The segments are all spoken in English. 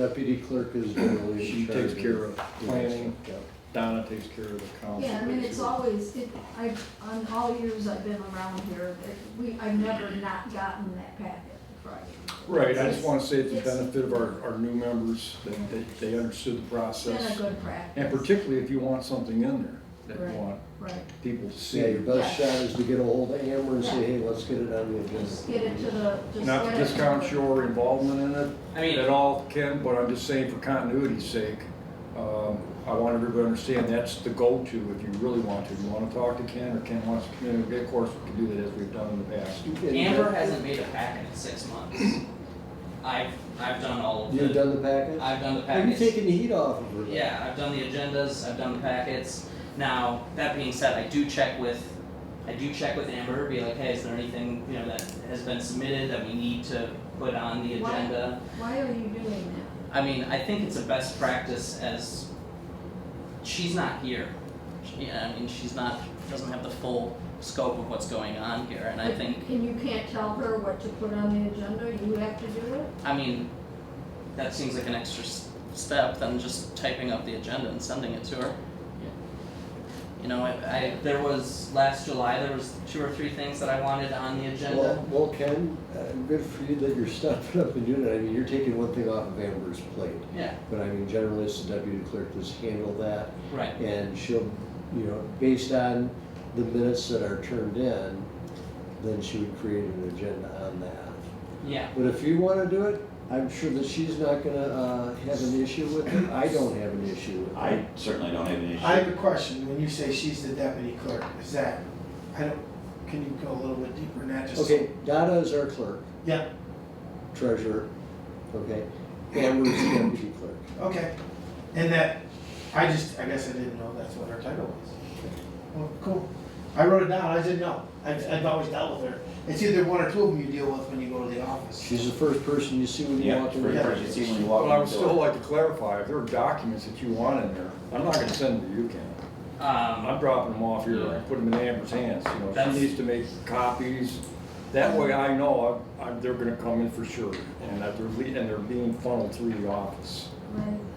Deputy clerk is generally. in She charge takes care of that planning. stuff, yeah. Donna takes care of the council. Yeah, I mean, it's always, it, I, on all years I've been around here, that we, I've never not gotten that packet Friday. Right, I just wanna say it's the It's- benefit of our, our new members, that they, they understood the It's been a process. good practice. And particularly if you want something in there that Right. you want Right, people to see. Yeah, your best Yeah. shot is to get a hold of Amber and say, Yeah. hey, let's get it on the just agenda. get it to the, just. Not to get it to the- discount your involvement in it. I mean- At all, Ken, but I'm just saying for continuity's sake, um, I want everybody to understand that's the go-to if you really want to. You wanna talk to Ken or Ken wants to communicate, of course, we can do that as we've done in the past. And Amber hasn't made a packet in six months. I've, I've done all of the. You've done the package? I've done the Well, You're packets. taking the heat off of her. then. Yeah, I've done the agendas, I've done the packets. Now, that being said, I do check with, I do check with Amber, be like, hey, is there anything, you know, that has been submitted that we need to put on the Why? agenda? Why are you doing I mean, I think it's a best practice as, she's not here. Yeah, I mean, she's not, doesn't have the full scope of what's going on here, and that? I think And you can't tell her what to put on the agenda, you have to do it? I mean, that seems like an extra s- step than just typing up the agenda and sending it to her. You know, I, I, there was, last July, there was two or three things that I wanted on the Well, agenda. well, Ken, uh, good for you that you're stepping up and doing it. I mean, you're taking one thing off of Amber's plate. Yeah, But I mean, generally, it's the deputy clerk that's handled that. right, And she'll, you know, based on the minutes that are turned in, then she would create an agenda on that. yeah, But if you wanna do it, I'm sure that she's not gonna, uh, have an issue with it. I don't have an issue with it. I certainly don't have an issue. I have a question, when you say she's the deputy clerk, is that, I don't, can you go a little bit deeper than that, just? Okay, Donna is our clerk, Yeah, treasurer, okay? Amber's the deputy clerk. okay, and that, I just, I guess I didn't know that's what her title was. Well, cool, I wrote it down, I didn't know, I've, I've always dealt with her, it's either one or two of them you deal with when you go to the office. She's the first person you see when you Yeah, walk first in. the person you see when you walk in But I the would still door. like to clarify, if there are documents that you want in there, I'm not gonna send them to you, Ken. I'm um, dropping them off here and putting them in Amber's hands, you know, That's- she needs to make copies. That way I know I, I, they're gonna come in for sure, and that they're, le- and they're being funneled through the office.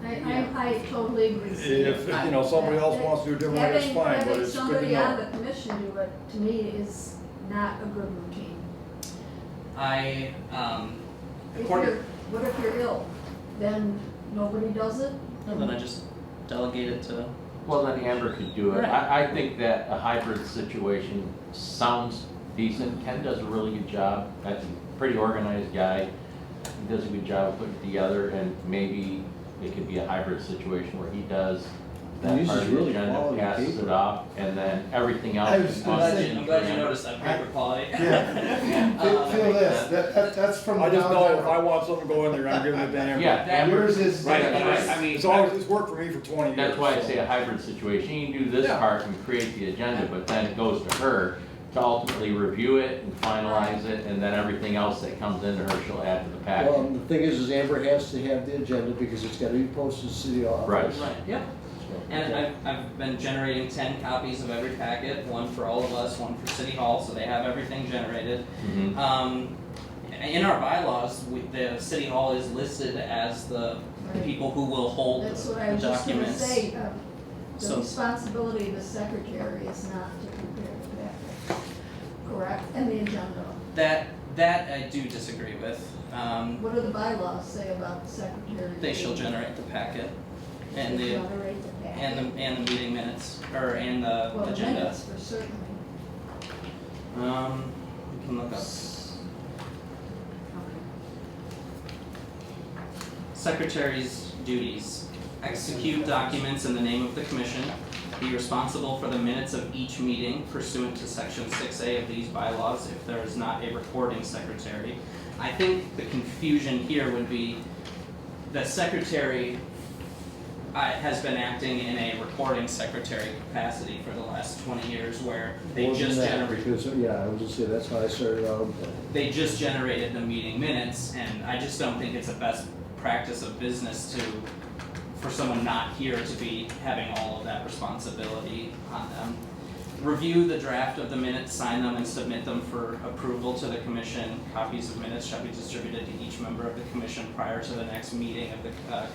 Right, I, I, I totally agree. with you. If, you know, somebody else wants to do it differently, that's Having, fine, but having it's good to somebody on know. the commission do it, to me, is not a good routine. I, um, If Quarter. you're, what if you're ill? Then nobody does it? and then I just delegated to, Well, then Amber could do it. Right. I, I think that a hybrid situation sounds decent. Ken does a really good job. That's a pretty organized guy. He does a good job of putting it together and maybe it could be a hybrid situation where he does He that uses part of the really agenda, quality passes paper. it off, and then everything else. I was is gonna done. say- I'm glad you noticed that paper quality. Yeah. Feel, Um, feel this, that, that, that's from. I just down know there. if I want something to go in there, I'm giving it to Amber. Yeah, Amber, Yours is. Right, but I- I mean, It's always, it's worked for me for twenty years. that's why I so. say a hybrid situation. You can do this Yeah. part and create the agenda, but then it goes to her to ultimately review it and finalize it, and then everything else that comes into her, she'll add to the package. Well, the thing is, is Amber has to have the agenda because it's gotta be posted to the office. Right. Right, yeah, And I've, I've been generating ten copies of every packet, one for all of us, one for City Hall, so they have everything generated. Mhm. Um, in our bylaws, we, the City Hall is listed as the the Right. people who will hold the That's what I was just gonna documents. say, uh, the So- responsibility of the secretary is not to prepare the packet, correct? And the agenda. That, that I do disagree with, um, What do the bylaws say about the secretary? they shall generate the packet and the, Moderate the packet. and the, and the meeting minutes, or, and the Well, agenda. minutes for certainly. Um, you can look up. Secretary's duties. Execute documents in the name of the commission. Be responsible for the minutes of each meeting pursuant to section six A of these bylaws if there is not a recording secretary. I think the confusion here would be the secretary uh, has been acting in a recording secretary capacity for the last twenty years where they More than just that, generate Because, yeah, I was just saying, that's how I started out. in planning. they just generated the meeting minutes, and I just don't think it's a best practice of business to, for someone not here to be having all of that responsibility on them. review the draft of the minutes, sign them, and submit them for approval to the commission. Copies of minutes shall be distributed to each member of the commission prior to the next meeting of the uh,